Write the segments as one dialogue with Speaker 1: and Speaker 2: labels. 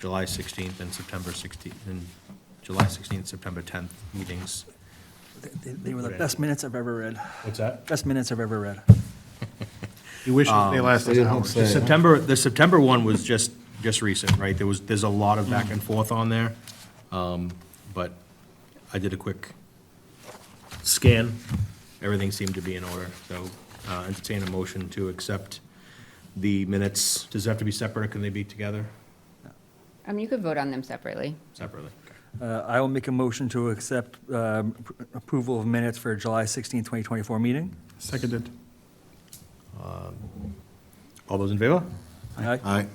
Speaker 1: July 16th and September 16th, and July 16th, September 10th meetings.
Speaker 2: They- They were the best minutes I've ever read.
Speaker 3: What's that?
Speaker 2: Best minutes I've ever read.
Speaker 4: You wish they
Speaker 3: Um,
Speaker 4: lasted an hour.
Speaker 1: The September, the September one was just, just recent, right? There was, there's a lot of back and forth on there. Um, But I did a quick scan. Everything seemed to be in order, so uh, entertain a motion to accept the minutes. Does it have to be separate, or can they be together?
Speaker 5: Um, you could vote on them separately.
Speaker 1: Separately.
Speaker 2: Uh, I will make a motion to accept um, pr- approval of minutes for July 16, 2024 meeting.
Speaker 4: Seconded.
Speaker 1: All those in favor?
Speaker 2: Aye.
Speaker 4: Aye.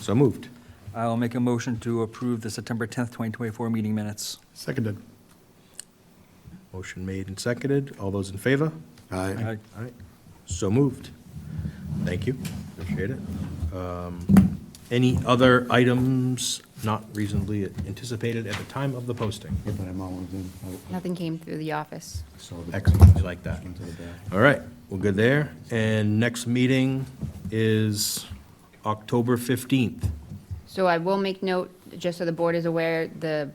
Speaker 1: So moved.
Speaker 2: I will make a motion to approve the September 10th, 2024 meeting minutes.
Speaker 4: Seconded.
Speaker 1: Motion made and seconded. All those in favor?
Speaker 4: Aye.
Speaker 2: Aye.
Speaker 1: All right, so moved. Thank you, appreciate it. Um, Any other items not reasonably anticipated at the time of the posting?
Speaker 3: Oh,
Speaker 5: Nothing came through the office.
Speaker 1: Excellent, I like that. All right, we're good there. And next meeting is October 15th.
Speaker 5: So I will make note, just so the board is aware, the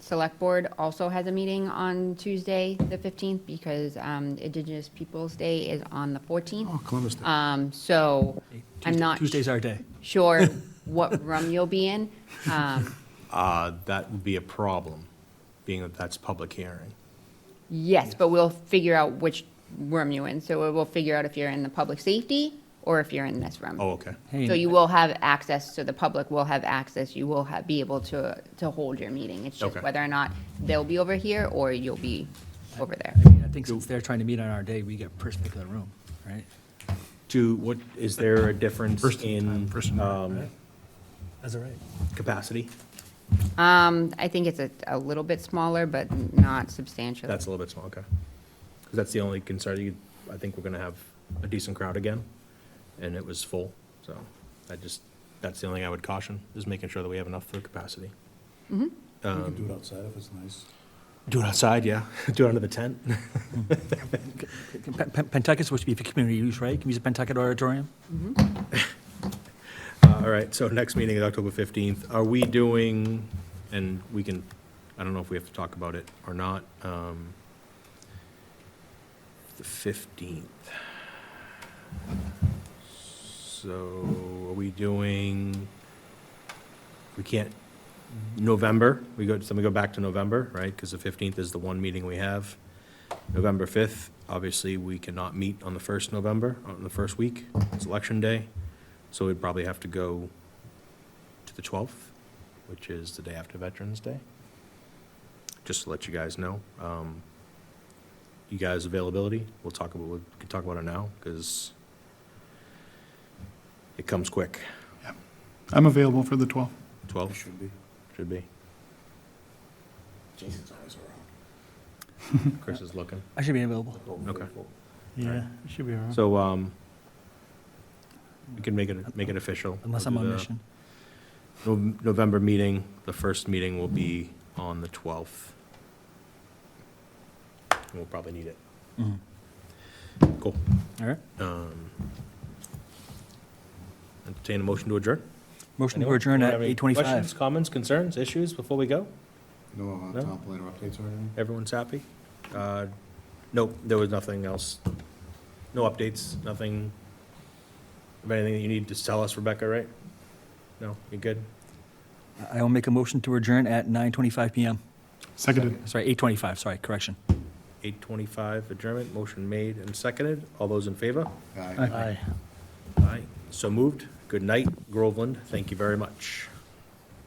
Speaker 5: select board also has a meeting on Tuesday, the 15th, because um, Indigenous Peoples' Day is on the 14th.
Speaker 4: Oh, Columbus Day.
Speaker 5: Um, So I'm not
Speaker 2: Tuesday's our day.
Speaker 5: sure what room you'll be in. Um,
Speaker 1: Uh, That would be a problem, being that that's public hearing.
Speaker 5: Yes, but we'll figure out which room you're in. So we'll figure out if you're in the public safety or if you're in this room.
Speaker 1: Oh, okay.
Speaker 2: Hey,
Speaker 5: So you will have access, so the public will have access, you will have, be able to, to hold your meeting. It's just
Speaker 1: Okay.
Speaker 5: whether or not they'll be over here or you'll be over there.
Speaker 2: I mean, I think since they're trying to meet on our day, we get first pick of the room, right?
Speaker 1: Do, what, is there a difference
Speaker 4: First
Speaker 1: in
Speaker 4: time, first time.
Speaker 1: um,
Speaker 2: That's all right.
Speaker 1: capacity?
Speaker 5: Um, I think it's a, a little bit smaller, but not substantial.
Speaker 1: That's a little bit small, okay. Because that's the only concern, you, I think we're gonna have a decent crowd again, and it was full, so I just, that's the only thing I would caution, is making sure that we have enough for capacity.
Speaker 3: You can do it outside if it's nice.
Speaker 1: Do it outside, yeah, do it under the tent.
Speaker 2: Pentucket's supposed to be for community use, right? Can we use the Pentucket Auditorium?
Speaker 1: Uh, All right, so next meeting is October fifteenth, are we doing, and we can, I don't know if we have to talk about it or not, um, the fifteenth. So are we doing, we can't, November, we go, so we go back to November, right? Because the fifteenth is the one meeting we have. November fifth, obviously, we cannot meet on the first November, on the first week, it's election day. So we'd probably have to go to the 12th, which is the day after Veterans Day. Just to let you guys know. Um, You guys' availability, we'll talk about, we can talk about it now, because it comes quick.
Speaker 4: I'm available for the 12th.
Speaker 1: 12? Should be. Should be.
Speaker 3: Jason's always around.
Speaker 1: Chris is looking.
Speaker 2: I should be available.
Speaker 1: Okay.
Speaker 6: Yeah, it should be all right.
Speaker 1: So um, we can make it, make it official.
Speaker 2: Unless
Speaker 1: We'll
Speaker 2: I'm
Speaker 1: do
Speaker 2: on
Speaker 1: the
Speaker 2: mission.
Speaker 1: Nov- November meeting, the first meeting will be on the 12th. And We'll probably need it.
Speaker 2: Mhm.
Speaker 1: Mm-hmm. Cool.
Speaker 2: Mm-hmm. All right.
Speaker 1: Um, Entertain a motion to adjourn?
Speaker 2: Motion to adjourn at
Speaker 1: Anyone have any
Speaker 2: 8:25.
Speaker 1: Questions, comments, concerns, issues before we go?
Speaker 4: No
Speaker 1: No?
Speaker 4: top later updates or anything?
Speaker 1: Everyone's happy? Uh, Nope, there was nothing else. No updates, nothing of anything that you need to tell us, Rebecca, right? No, you good?
Speaker 2: I will make a motion to adjourn at 9:25 PM.
Speaker 4: Seconded.
Speaker 2: Sorry, 8:25, sorry, correction.
Speaker 1: 8:25 adjournment, motion made and seconded. All those in favor?
Speaker 4: Aye.
Speaker 2: Aye.
Speaker 1: Aye. So moved. Good night, Groveland. Thank you very much.